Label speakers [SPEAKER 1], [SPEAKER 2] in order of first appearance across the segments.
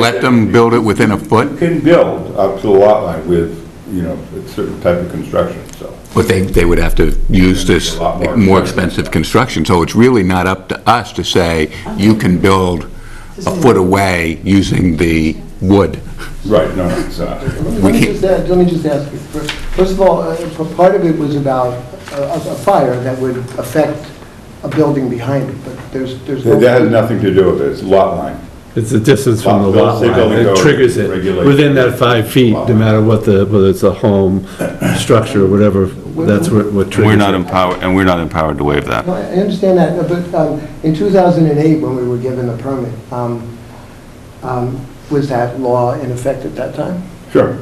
[SPEAKER 1] Let them build it within a
[SPEAKER 2] You
[SPEAKER 1] foot,
[SPEAKER 2] can build up to the lot line with, you know, a certain type of construction, so.
[SPEAKER 1] but they, they would have to use this
[SPEAKER 2] A lot more
[SPEAKER 1] more expensive construction. So it's really not up to us to say, you can build a foot away using the wood.
[SPEAKER 2] Right, no, it's, uh,
[SPEAKER 1] We
[SPEAKER 3] Let me
[SPEAKER 1] can't-
[SPEAKER 3] just, add- let me just ask you, First- first of all, uh, p- part of it was about a a- a fire that would affect a building behind it, but there's, there's no...
[SPEAKER 2] that that has nothing to do with it, it's lot line.
[SPEAKER 4] It's the distance from the
[SPEAKER 2] Lot-
[SPEAKER 4] lot
[SPEAKER 2] they're
[SPEAKER 4] line.
[SPEAKER 2] building
[SPEAKER 4] It
[SPEAKER 2] code
[SPEAKER 4] triggers it
[SPEAKER 2] regulations.
[SPEAKER 4] within that five feet,
[SPEAKER 2] Lot
[SPEAKER 4] no
[SPEAKER 2] line.
[SPEAKER 4] matter what the, whether it's a home, structure, whatever, that's what what triggers
[SPEAKER 5] We're
[SPEAKER 4] it.
[SPEAKER 5] not empowered, and we're not empowered to waive that.
[SPEAKER 3] No, I I understand that, uh, but um, in 2008, when we were given the permit, um, um, was that law in effect at that time?
[SPEAKER 2] Sure.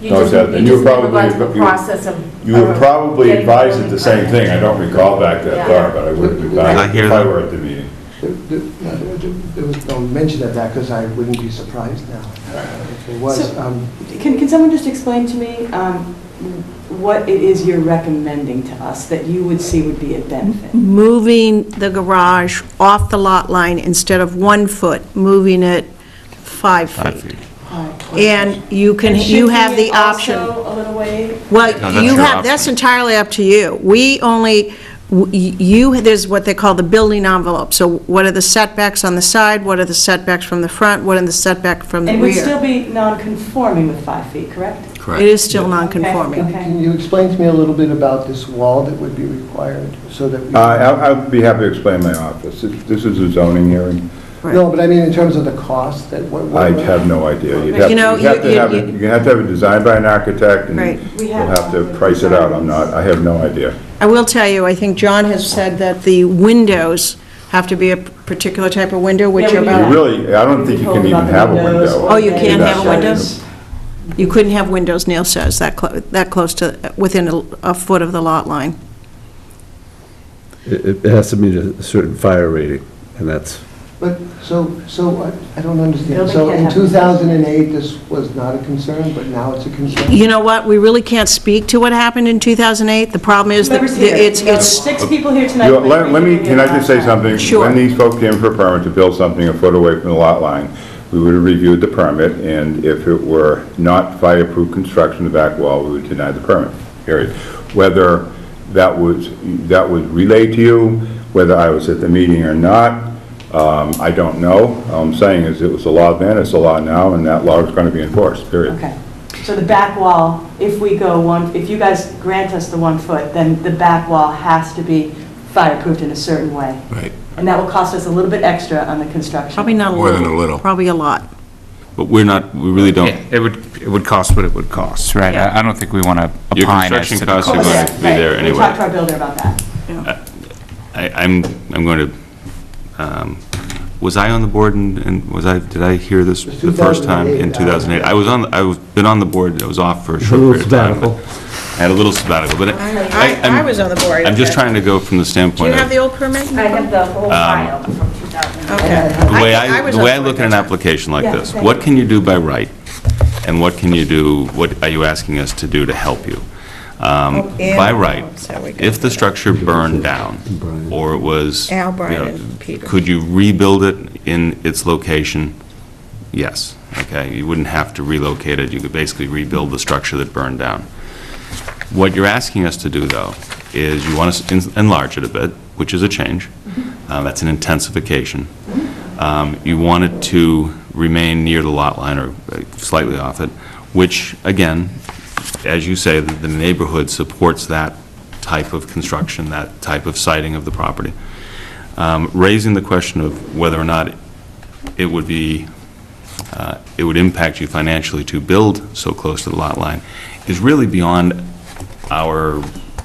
[SPEAKER 6] You
[SPEAKER 2] No,
[SPEAKER 6] just,
[SPEAKER 2] it's that-
[SPEAKER 6] you
[SPEAKER 2] and you
[SPEAKER 6] just never
[SPEAKER 2] probably-
[SPEAKER 6] got to the
[SPEAKER 2] you-
[SPEAKER 6] process of.
[SPEAKER 2] You were
[SPEAKER 6] of
[SPEAKER 2] probably
[SPEAKER 6] getting
[SPEAKER 2] advised at
[SPEAKER 6] building
[SPEAKER 2] the same
[SPEAKER 6] permit.
[SPEAKER 2] thing, I don't recall back that far, but I would have been
[SPEAKER 5] I
[SPEAKER 2] back
[SPEAKER 5] hear
[SPEAKER 2] if I
[SPEAKER 5] that.
[SPEAKER 2] were at the meeting.
[SPEAKER 3] There- There no, there- there- there was no mention of that, because I wouldn't be surprised now if there was.
[SPEAKER 7] So-
[SPEAKER 3] um,
[SPEAKER 7] Can, can someone just explain to me um, what it is you're recommending to us that you would see would be a benefit?
[SPEAKER 8] moving the garage off the lot line instead of one foot, moving it five
[SPEAKER 5] Five
[SPEAKER 8] feet.
[SPEAKER 5] feet.
[SPEAKER 8] And you can, you have the option.
[SPEAKER 7] And shifting it also a little way?
[SPEAKER 5] No,
[SPEAKER 8] Well,
[SPEAKER 5] that's
[SPEAKER 8] you
[SPEAKER 5] your
[SPEAKER 8] have, that's
[SPEAKER 5] option.
[SPEAKER 8] entirely up to you. We only, w- you, there's what they call the building envelope. So what are the setbacks on the side, what are the setbacks from the front, what are the setback from the
[SPEAKER 7] It would still
[SPEAKER 8] rear?
[SPEAKER 7] be non-conforming with five feet, correct?
[SPEAKER 8] It is still non-conforming.
[SPEAKER 7] Okay.
[SPEAKER 3] Can you explain to me a little bit about this wall that would be required, so that we...
[SPEAKER 2] Uh, I- I'd be happy to explain my office, It- this is a zoning hearing,
[SPEAKER 3] No, but I mean, in terms of the cost, that what... what-
[SPEAKER 2] I have no idea. You'd have-
[SPEAKER 8] You know,
[SPEAKER 2] you'd have to
[SPEAKER 8] you-
[SPEAKER 2] have it-
[SPEAKER 8] you-
[SPEAKER 2] You have to have it designed by an architect, and
[SPEAKER 8] Right.
[SPEAKER 7] We
[SPEAKER 2] you'll
[SPEAKER 7] have
[SPEAKER 2] have to
[SPEAKER 7] one.
[SPEAKER 2] price it out, I'm not, I have no idea.
[SPEAKER 8] I will tell you, I think John has said that the windows have to be a particular type of window, which
[SPEAKER 7] Yeah,
[SPEAKER 8] are
[SPEAKER 7] we
[SPEAKER 2] You
[SPEAKER 7] do.
[SPEAKER 8] about,
[SPEAKER 2] really, I don't think you can even have a window.
[SPEAKER 8] Oh, you can't
[SPEAKER 2] That's
[SPEAKER 8] have a
[SPEAKER 2] not-
[SPEAKER 8] window? you couldn't have windows, Neil says, that clo, that close to, within a a foot of the lot line.
[SPEAKER 4] It it has to meet a certain fire rating, and that's,
[SPEAKER 3] But, so, so, I- I don't understand.
[SPEAKER 7] Building
[SPEAKER 3] So
[SPEAKER 7] can't
[SPEAKER 3] in
[SPEAKER 7] have-
[SPEAKER 3] 2008, this was not a concern, but now it's a concern?
[SPEAKER 8] You know what, we really can't speak to what happened in 2008. The problem is that
[SPEAKER 7] Whoever's here,
[SPEAKER 8] it's,
[SPEAKER 7] you know,
[SPEAKER 8] it's,
[SPEAKER 7] Six people here tonight.
[SPEAKER 2] You-
[SPEAKER 7] but
[SPEAKER 2] Let let me,
[SPEAKER 7] we
[SPEAKER 2] can I just say something?
[SPEAKER 8] Sure.
[SPEAKER 2] When these folks came for a permit to build something a foot away from the lot line, we would have reviewed the permit, and if it were not fireproof construction of the back wall, we would deny the permit, period. Whether that was, that was relayed to you, whether I was at the meeting or not, um, I don't know. All I'm saying is it was a law then, it's a law now, and that law is going to be enforced, period.
[SPEAKER 7] Okay. So the back wall, if we go one, if you guys grant us the one foot, then the back wall has to be fireproofed in a certain way.
[SPEAKER 1] Right.
[SPEAKER 7] And that will cost us a little bit extra on the construction.
[SPEAKER 8] probably not a
[SPEAKER 1] More
[SPEAKER 8] little.
[SPEAKER 1] than a little.
[SPEAKER 8] Probably a lot.
[SPEAKER 5] But we're not, we really
[SPEAKER 9] Yeah,
[SPEAKER 5] don't,
[SPEAKER 9] it would, it would cost what it would cost, right? I I don't think we want to
[SPEAKER 5] Your
[SPEAKER 9] opine as
[SPEAKER 5] construction
[SPEAKER 9] to the
[SPEAKER 5] costs are
[SPEAKER 9] cost.
[SPEAKER 5] gonna-
[SPEAKER 7] Right.
[SPEAKER 5] be there
[SPEAKER 7] We
[SPEAKER 5] anyway.
[SPEAKER 7] talked to our builder about that.
[SPEAKER 5] I, I'm, I'm going to, um, was I on the board and, and was I, did I hear this the first time in 2008? I was on, I was, been on the board, I was off for a short
[SPEAKER 4] little
[SPEAKER 5] period of time. but- I had a little sabbatical, but I,
[SPEAKER 8] I
[SPEAKER 5] I'm-
[SPEAKER 8] was on the board.
[SPEAKER 5] I'm just trying to go from the
[SPEAKER 8] Do you
[SPEAKER 5] standpoint of.
[SPEAKER 8] have the old permit?
[SPEAKER 6] I have the
[SPEAKER 5] Um,
[SPEAKER 6] whole file from 2000.
[SPEAKER 8] Okay.
[SPEAKER 5] The way
[SPEAKER 8] I
[SPEAKER 5] I,
[SPEAKER 8] was
[SPEAKER 5] the way I
[SPEAKER 8] on the
[SPEAKER 5] look at an
[SPEAKER 8] board.
[SPEAKER 5] application like
[SPEAKER 7] Yeah,
[SPEAKER 5] this,
[SPEAKER 7] thank
[SPEAKER 5] what
[SPEAKER 7] you.
[SPEAKER 5] can you do by right? And what can you do, what are you asking us to do to help you? Um,
[SPEAKER 8] Oh, and-
[SPEAKER 5] By right,
[SPEAKER 8] so we got
[SPEAKER 5] if the structure burned down, or it was...
[SPEAKER 8] Al,
[SPEAKER 5] you
[SPEAKER 8] Brian,
[SPEAKER 5] know,
[SPEAKER 8] and Peter.
[SPEAKER 5] Could you rebuild it in its location? Yes, okay, you wouldn't have to relocate it, you could basically rebuild the structure that burned down. What you're asking us to do, though, is you want us to enlarge it a bit, which is a change.
[SPEAKER 8] Mm-hmm.
[SPEAKER 5] Uh, That's an intensification. Um, You want it to remain near the lot line or uh, slightly off it, which, again, as you say, the the neighborhood supports that type of construction, that type of siding of the property. Um, Raising the question of whether or not it would be, uh, it would impact you financially to build so close to the lot line is really beyond our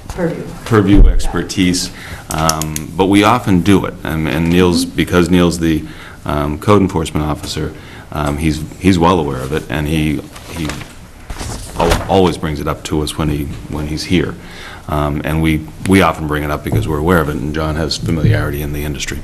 [SPEAKER 7] Purview.
[SPEAKER 5] purview expertise, um, but we often do it. And and Neil's, because Neil's the um, code enforcement officer, um, he's, he's well aware of it, and he, he al- always brings it up to us when he, when he's here. Um, And we, we often bring it up because we're aware of it, and John has familiarity in the industry.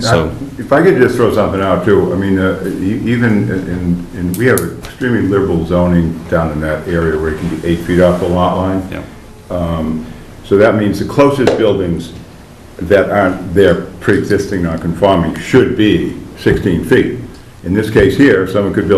[SPEAKER 5] So-
[SPEAKER 2] If I could just throw something out too, I mean, uh, e- even in, in, we have extremely liberal zoning down in that area where it can be eight feet off the lot line. Um,
[SPEAKER 5] Yeah.
[SPEAKER 2] So that means the closest buildings that aren't there pre-existing non-conforming should be 16 feet. In this case here, someone could build